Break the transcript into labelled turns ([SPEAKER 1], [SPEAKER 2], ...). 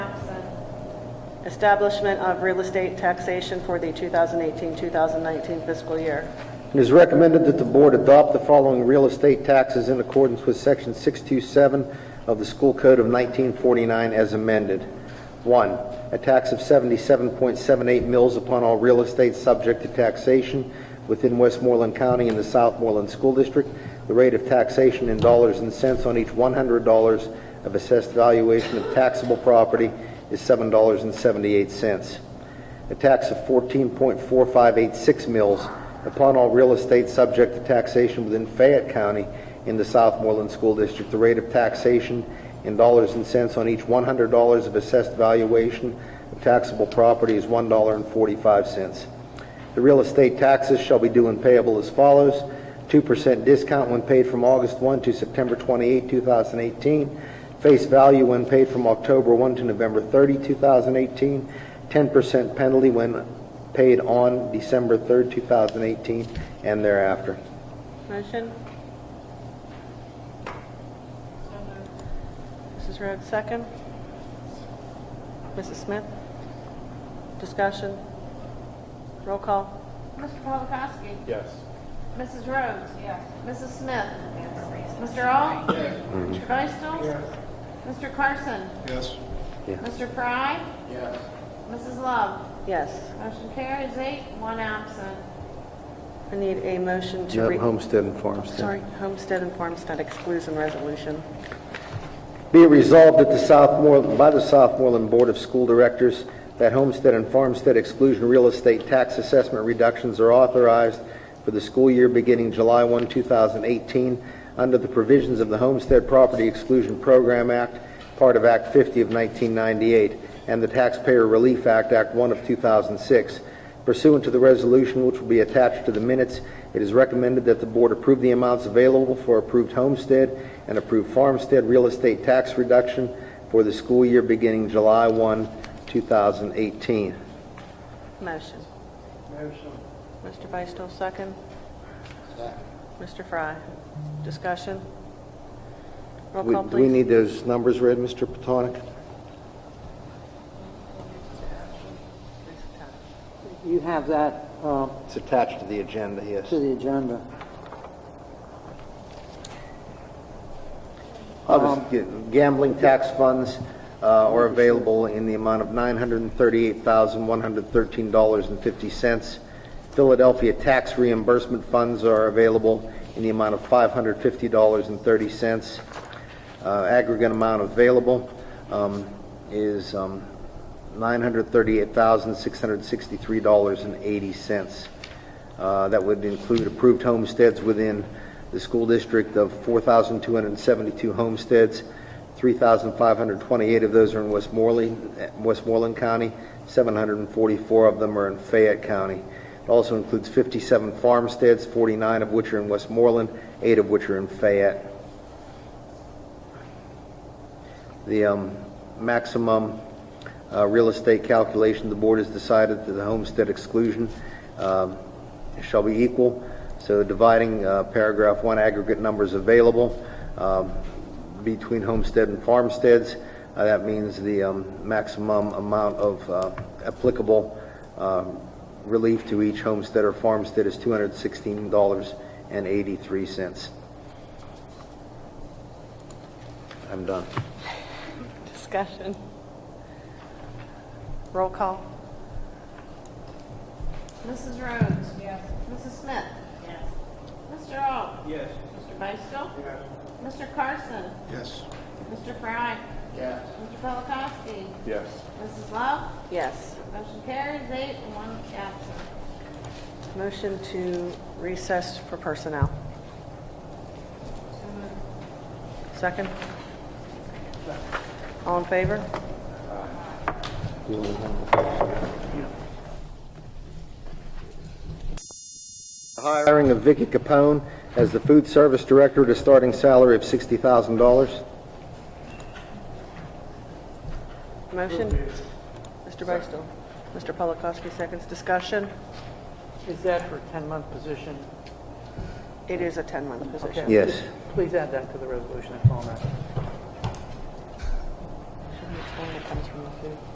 [SPEAKER 1] Establishment of real estate taxation for the 2018-2019 fiscal year.
[SPEAKER 2] It is recommended that the board adopt the following real estate taxes in accordance with Section 627 of the School Code of 1949 as amended. One, a tax of 77.78 mills upon all real estate subject to taxation within Westmoreland County and the Southmoreland School District. The rate of taxation in dollars and cents on each $100 of assessed valuation of taxable property is $7.78 a tax of 14.4586 mills upon all real estate subject to taxation within Fayette County in the Southmoreland School District. The rate of taxation in dollars and cents on each $100 of assessed valuation of taxable property is $1.45. The real estate taxes shall be due and payable as follows: 2% discount when paid from August 1 to September 28, 2018, face value when paid from October 1 to November 30, 2018, 10% penalty when paid on December 3, 2018, and thereafter.
[SPEAKER 1] Motion? Mrs. Rhodes, second. Mrs. Smith? Discussion? Roll call?
[SPEAKER 3] Mr. Polakowski.
[SPEAKER 4] Yes.
[SPEAKER 3] Mrs. Rhodes. Yes. Mrs. Smith. Mr. Al. Yes. Mr. Beistel. Mr. Carson.
[SPEAKER 4] Yes.
[SPEAKER 3] Mr. Fry.
[SPEAKER 4] Yes.
[SPEAKER 3] Mrs. Love.
[SPEAKER 1] Yes.
[SPEAKER 3] Motion carries eight, one absent.
[SPEAKER 1] I need a motion to...
[SPEAKER 2] Yep,
[SPEAKER 1] re-
[SPEAKER 2] Homestead and Farmstead.
[SPEAKER 1] Sorry, Homestead and Farmstead exclusion resolution.
[SPEAKER 2] Be it resolved that the Southmoreland, by the Southmoreland Board of School Directors, that homestead and farmstead exclusion real estate tax assessment reductions are authorized for the school year beginning July 1, 2018, under the provisions of the Homestead Property Exclusion Program Act, part of Act 50 of 1998, and the Taxpayer Relief Act, Act 1 of 2006. Pursuant to the resolution which will be attached to the minutes, it is recommended that the board approve the amounts available for approved homestead and approved farmstead real estate tax reduction for the school year beginning July 1, 2018.
[SPEAKER 1] Motion. Motion. Mr. Beistel, second. Mr. Fry, discussion? Roll
[SPEAKER 2] We-
[SPEAKER 1] call,
[SPEAKER 2] Do we
[SPEAKER 1] please.
[SPEAKER 2] need those numbers read, Mr. Petonic?
[SPEAKER 5] You have that uh,
[SPEAKER 2] It's attached to the agenda, yes.
[SPEAKER 5] to the agenda.
[SPEAKER 2] I'll just get- Um, Gambling tax funds uh, are available in the amount of $938,113.50. Philadelphia tax reimbursement funds are available in the amount of $550.30. Uh, Aggregate amount available um, is um, $938,663.80. Uh, That would include approved homesteads within the school district of 4,272 homesteads. 3,528 of those are in Westmoreland, eh, Westmoreland County, 744 of them are in Fayette County. It also includes 57 farmsteads, 49 of which are in Westmoreland, eight of which are in Fayette. The um, maximum uh, real estate calculation, the board has decided that the homestead exclusion um, shall be equal, so dividing uh, paragraph one aggregate numbers available um, between homestead and farmsteads, uh, that means the um, maximum amount of uh, applicable um, relief to each homestead or farmstead is $216.83. I'm done.
[SPEAKER 1] Discussion? Roll call?
[SPEAKER 3] Mrs. Rhodes. Yes. Mrs. Smith. Yes. Mr. Al. Yes. Mr. Beistel. Yes. Mr. Carson.
[SPEAKER 4] Yes.
[SPEAKER 3] Mr. Fry.
[SPEAKER 4] Yes.
[SPEAKER 3] Mr. Polakowski.
[SPEAKER 4] Yes.
[SPEAKER 3] Mrs. Love.
[SPEAKER 1] Yes.
[SPEAKER 3] Motion carries eight, one absent.
[SPEAKER 1] Motion to recess for personnel. Second? All in favor?
[SPEAKER 2] The Hiring of Vicky Capone as the food service director at a starting salary of $60,000.
[SPEAKER 1] Motion? Mr. Beistel? Mr. Polakowski, seconds. Discussion?
[SPEAKER 6] Is that for a 10-month position?
[SPEAKER 1] It is a 10-month position.
[SPEAKER 6] Okay.
[SPEAKER 2] Yes.
[SPEAKER 6] Please add that to the resolution, I call on that.
[SPEAKER 1] Should we explain it comes from the food?